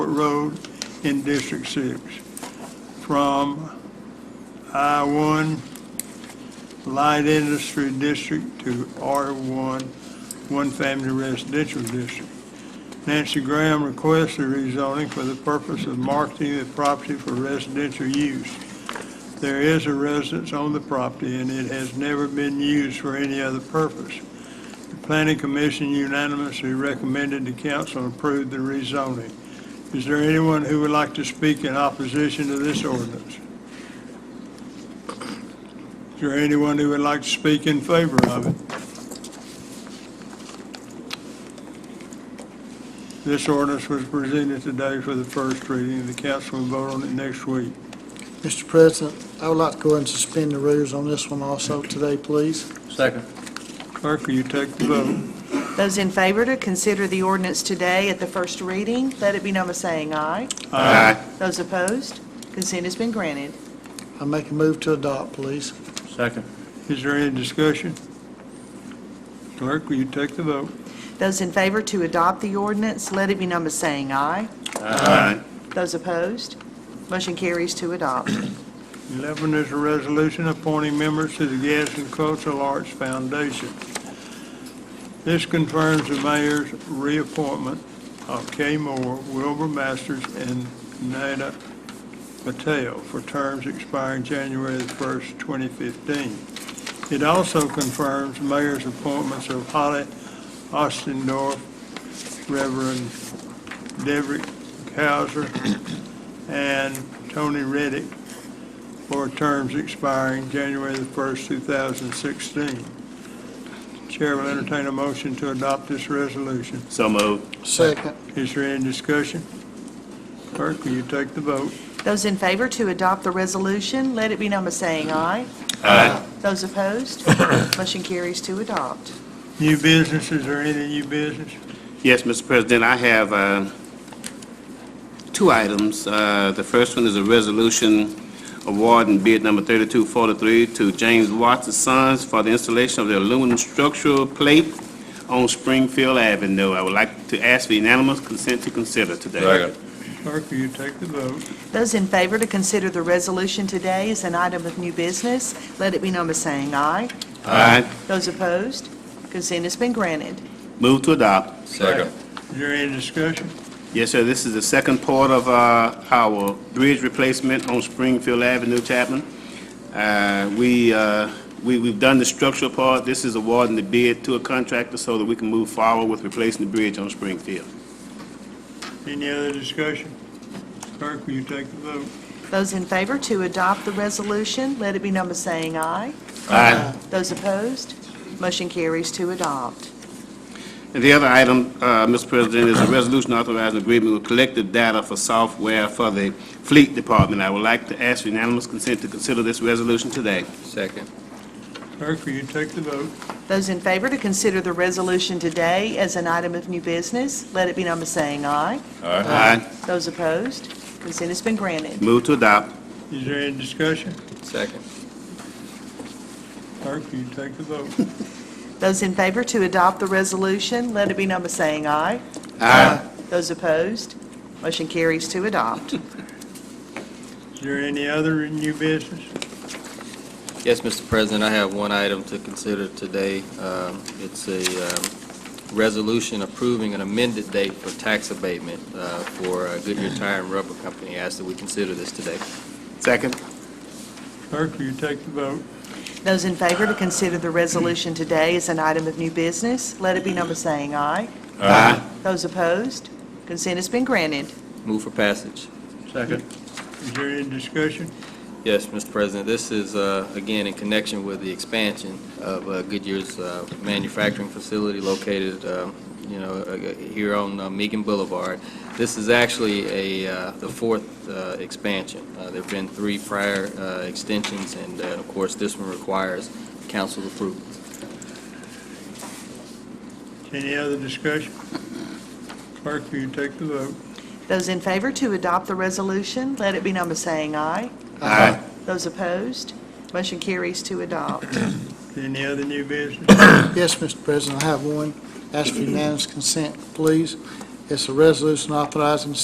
Road in District Six from I-1 Light Industry District to R1 One Family Residential District. Nancy Graham requests a rezoning for the purpose of marketing the property for residential use. There is a residence on the property, and it has never been used for any other purpose. The Planning Commission unanimously recommended the council approve the rezoning. Is there anyone who would like to speak in opposition to this ordinance? Is there anyone who would like to speak in favor of it? This ordinance was presented today for the first reading. The council will vote on it next week. Mr. President, I would like to go ahead and suspend the rules on this one also today, please. Second. Clerk, will you take the vote? Those in favor to consider the ordinance today at the first reading, let it be known by saying aye. Those opposed, consent has been granted. I make a move to adopt, please. Second. Is there any discussion? Clerk, will you take the vote? Those in favor to adopt the ordinance, let it be known by saying aye. Aye. Those opposed, motion carries to adopt. 11 is a resolution appointing members to the Gadsden Cultural Arts Foundation. This confirms the mayor's reappointment of Kay Moore, Wilbur Masters, and Nada Patel for terms expiring January the 1st, 2015. It also confirms mayor's appointments of Holly Ostendorf, Reverend Debrick Hauser, and Tony Reddick for terms expiring January the 1st, 2016. Chair will entertain a motion to adopt this resolution. So moved. Second. Is there any discussion? Clerk, will you take the vote? Those in favor to adopt the resolution, let it be known by saying aye. Aye. Those opposed, motion carries to adopt. New business, is there any new business? Yes, Mr. President, I have uh, two items. Uh, The first one is a resolution awarding bid number 3243 to James Watts and Sons for the installation of the aluminum structural plate on Springfield Avenue. I would like to ask for unanimous consent to consider today. Clerk, will you take the vote? Those in favor to consider the resolution today as an item of new business, let it be known by saying aye. Aye. Those opposed, consent has been granted. Move to adopt. Second. Is there any discussion? Yes, sir, this is the second part of uh, our bridge replacement on Springfield Avenue, Chapman. Uh, We, uh, we- we've done the structural part, this is awarding the bid to a contractor so that we can move forward with replacing the bridge on Springfield. Any other discussion? Clerk, will you take the vote? Those in favor to adopt the resolution, let it be known by saying aye. Aye. Those opposed, motion carries to adopt. And the other item, uh, Mr. President, is a resolution authorizing agreement with collective data for software for the fleet department. I would like to ask for unanimous consent to consider this resolution today. Second. Clerk, will you take the vote? Those in favor to consider the resolution today as an item of new business, let it be known by saying aye. Aye. Those opposed, consent has been granted. Move to adopt. Is there any discussion? Second. Clerk, will you take the vote? Those in favor to adopt the resolution, let it be known by saying aye. Aye. Those opposed, motion carries to adopt. Is there any other new business? Yes, Mr. President, I have one item to consider today. Um, It's a um, resolution approving an amended date for tax abatement uh, for uh, Goodyear Tire and Rubber Company. I ask that we consider this today. Second. Clerk, will you take the vote? Those in favor to consider the resolution today as an item of new business, let it be known by saying aye. Aye. Those opposed, consent has been granted. Move for passage. Second. Is there any discussion? Yes, Mr. President, this is, uh, again, in connection with the expansion of uh, Goodyear's uh, manufacturing facility located, um, you know, uh, here on uh, Meakin Boulevard. This is actually a, uh, the fourth uh, expansion. Uh, There've been three prior uh, extensions, and uh, of course, this one requires council approval. Any other discussion? Clerk, will you take the vote? Those in favor to adopt the resolution, let it be known by saying aye. Aye. Those opposed, motion carries to adopt. Any other new business? Yes, Mr. President, I have one. Ask for unanimous consent, please. It's a resolution authorizing